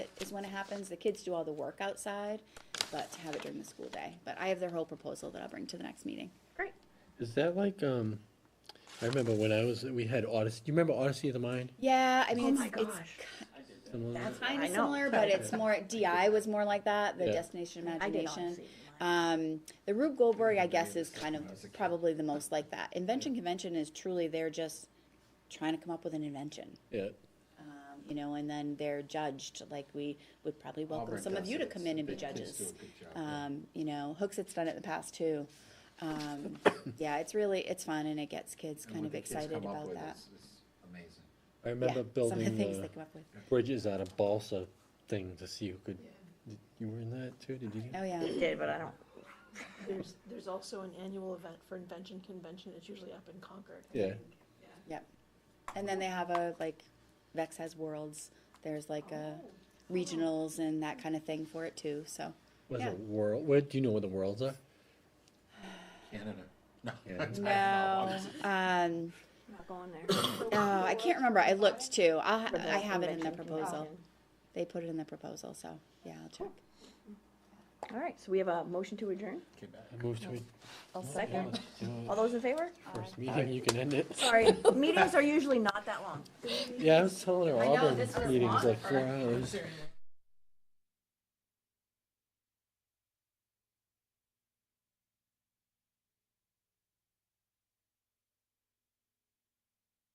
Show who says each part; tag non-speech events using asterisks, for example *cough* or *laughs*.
Speaker 1: is when it happens. The kids do all the work outside, but to have it during the school day. But I have their whole proposal that I'll bring to the next meeting.
Speaker 2: Great.
Speaker 3: Is that like, um, I remember when I was, we had Odyssey, do you remember Odyssey of the Mind?
Speaker 1: Yeah, I
Speaker 2: Oh
Speaker 1: mean,
Speaker 2: my
Speaker 1: it's, it's
Speaker 2: gosh.
Speaker 3: Something like that?
Speaker 2: That's
Speaker 1: kind
Speaker 2: I
Speaker 1: of
Speaker 2: know.
Speaker 1: similar, but it's more, DI was more like that, the
Speaker 3: Yeah.
Speaker 1: Destination
Speaker 2: I did
Speaker 1: Imagination.
Speaker 2: Odyssey.
Speaker 1: Um, the Rube Goldberg, I guess, is kind of probably the most like that. Invention Convention is truly, they're just trying to come up with an invention.
Speaker 3: Yeah,
Speaker 1: um, You know, and then they're judged, like we would probably welcome
Speaker 4: Auburn
Speaker 1: some of
Speaker 4: does
Speaker 1: you to
Speaker 4: it.
Speaker 1: come in and be
Speaker 4: Big kids do
Speaker 1: judges.
Speaker 4: a good job, yeah.
Speaker 1: Um, you know, Hooks it's done it in the past too. Um, yeah, it's really, it's fun and it gets kids
Speaker 4: And
Speaker 1: kind
Speaker 4: what
Speaker 1: of
Speaker 4: the kids
Speaker 1: excited
Speaker 4: come up
Speaker 1: about
Speaker 4: with
Speaker 1: that.
Speaker 4: is- is Amazing.
Speaker 3: I
Speaker 1: Yeah,
Speaker 3: remember
Speaker 1: some of the things
Speaker 3: building,
Speaker 1: they
Speaker 3: uh,
Speaker 1: come up with.
Speaker 3: bridges out of balsa thing to see who could, did- you were in that too, did you?
Speaker 1: Oh, yeah.
Speaker 2: It did, but I don't.
Speaker 5: There's, there's also an annual event for Invention Convention, it's usually up in Concord.
Speaker 3: Yeah,
Speaker 1: Yep. And then they have a, like, Vex has worlds, there's like a
Speaker 2: Oh.
Speaker 1: regionals and that kind of thing for it too, so.
Speaker 3: was
Speaker 1: Yeah.
Speaker 3: it world, where, do you know where the worlds are?
Speaker 4: Canada. *laughs* No.
Speaker 3: Yeah.
Speaker 1: No, um,
Speaker 2: Not going there.
Speaker 1: oh, I can't remember, I looked too, I,
Speaker 2: For the
Speaker 1: I have it in the
Speaker 2: convention
Speaker 1: proposal.
Speaker 2: convention.
Speaker 1: They put it in the proposal, so, yeah, I'll check.
Speaker 2: Oh. All right, so we have a motion to adjourn.
Speaker 4: Quebec.
Speaker 3: I moved to it. Oh,
Speaker 1: I'll
Speaker 2: Second.
Speaker 3: You know,
Speaker 2: All those in favor?
Speaker 3: First meeting, you can end it.
Speaker 2: Sorry, meetings are usually not that long.
Speaker 3: Yeah, I was telling her
Speaker 2: know,
Speaker 3: Auburn
Speaker 2: this was
Speaker 3: meeting's
Speaker 2: long
Speaker 3: like four hours.